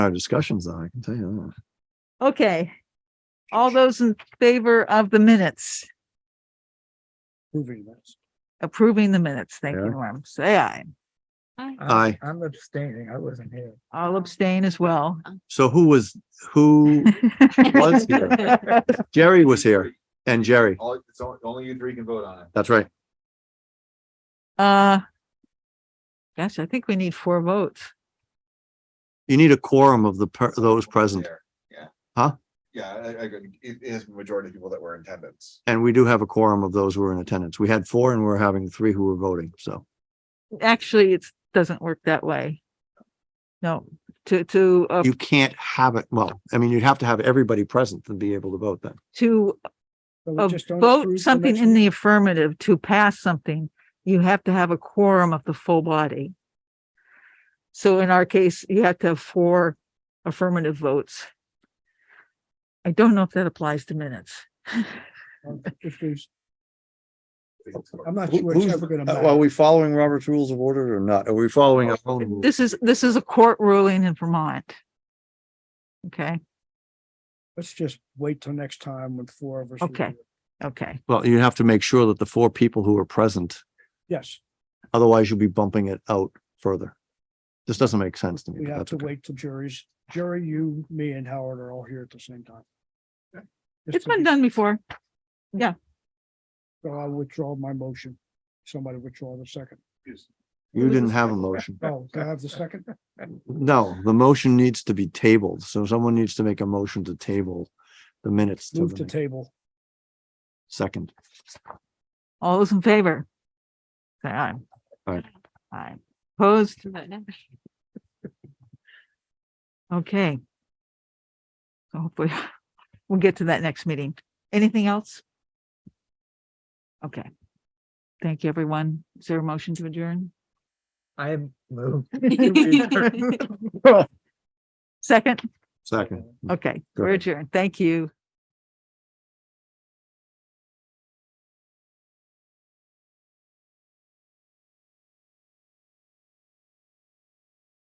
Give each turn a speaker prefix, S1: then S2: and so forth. S1: our discussions on, I can tell you
S2: Okay. All those in favor of the minutes,
S3: Proving this.
S2: approving the minutes, thank you,
S1: Yeah.
S2: Norm, say aye.
S1: Aye.
S3: I'm abstaining. I wasn't here.
S2: I'll abstain as well.
S1: that. So who was, who, Was here. Jerry was here and Jerry,
S4: All, it's only, only you three can vote on it.
S1: that's right.
S2: Uh, gosh, I think we need four votes.
S1: You need a quorum of the, per- those present.
S4: There, Yeah.
S1: Huh?
S4: Yeah, I, I, agree. it it is the majority of people that were in attendance.
S1: And we do have a quorum of those who are in attendance. We had four and we're having three who were voting, so.
S2: Actually, it doesn't work that way. No, to, to, uh,
S1: You can't have it, well, I mean, you'd have to have everybody present to be able to vote then.
S2: to
S3: So we
S2: uh,
S3: just don't approve
S2: vote
S3: the
S2: something
S3: next
S2: in
S3: one?
S2: the affirmative to pass something, you have to have a quorum of the full body. So in our case, you have to have four affirmative votes. I don't know if that applies to minutes.
S3: If there's, I'm
S4: It's
S3: not
S1: Who-
S3: sure it's
S1: who's-
S3: ever gonna
S1: uh, Are
S3: matter.
S1: we following Robert's Rules of Order or not? Are we following our own? rules?
S2: This is, this is a court ruling in Vermont. Okay,
S3: Let's just wait till next time when four of us.
S2: Okay.
S3: review it.
S2: okay.
S1: Well, you have to make sure that the four people who are present,
S3: Yes,
S1: otherwise you'll be bumping it out further. This doesn't make sense to me.
S3: we
S1: but
S3: have
S1: that's
S3: to
S1: okay.
S3: wait till juries, jury, you, me and Howard are all here at the same time. Just
S2: It's
S3: to
S2: been
S3: be-
S2: done before.
S3: So I withdraw my motion. Somebody withdraw the second.
S1: You didn't have a motion.
S3: Oh, do I have the second?
S1: No, the motion needs to be tabled. So someone needs to make a motion to table the minutes to
S3: Move
S1: the
S3: to
S1: next
S3: table.
S1: second.
S2: All those in favor? Say aye.
S1: Aye.
S2: Aye. Opposed?
S5: Vote no.
S2: Okay. So hopefully we'll get to that next meeting. Anything else? Okay. Thank you, everyone. Is there a motion to adjourn?
S3: I am moved.
S2: Second?
S1: Second.
S2: Okay,
S1: Go
S2: we're
S1: ahead.
S2: adjourned. Thank you.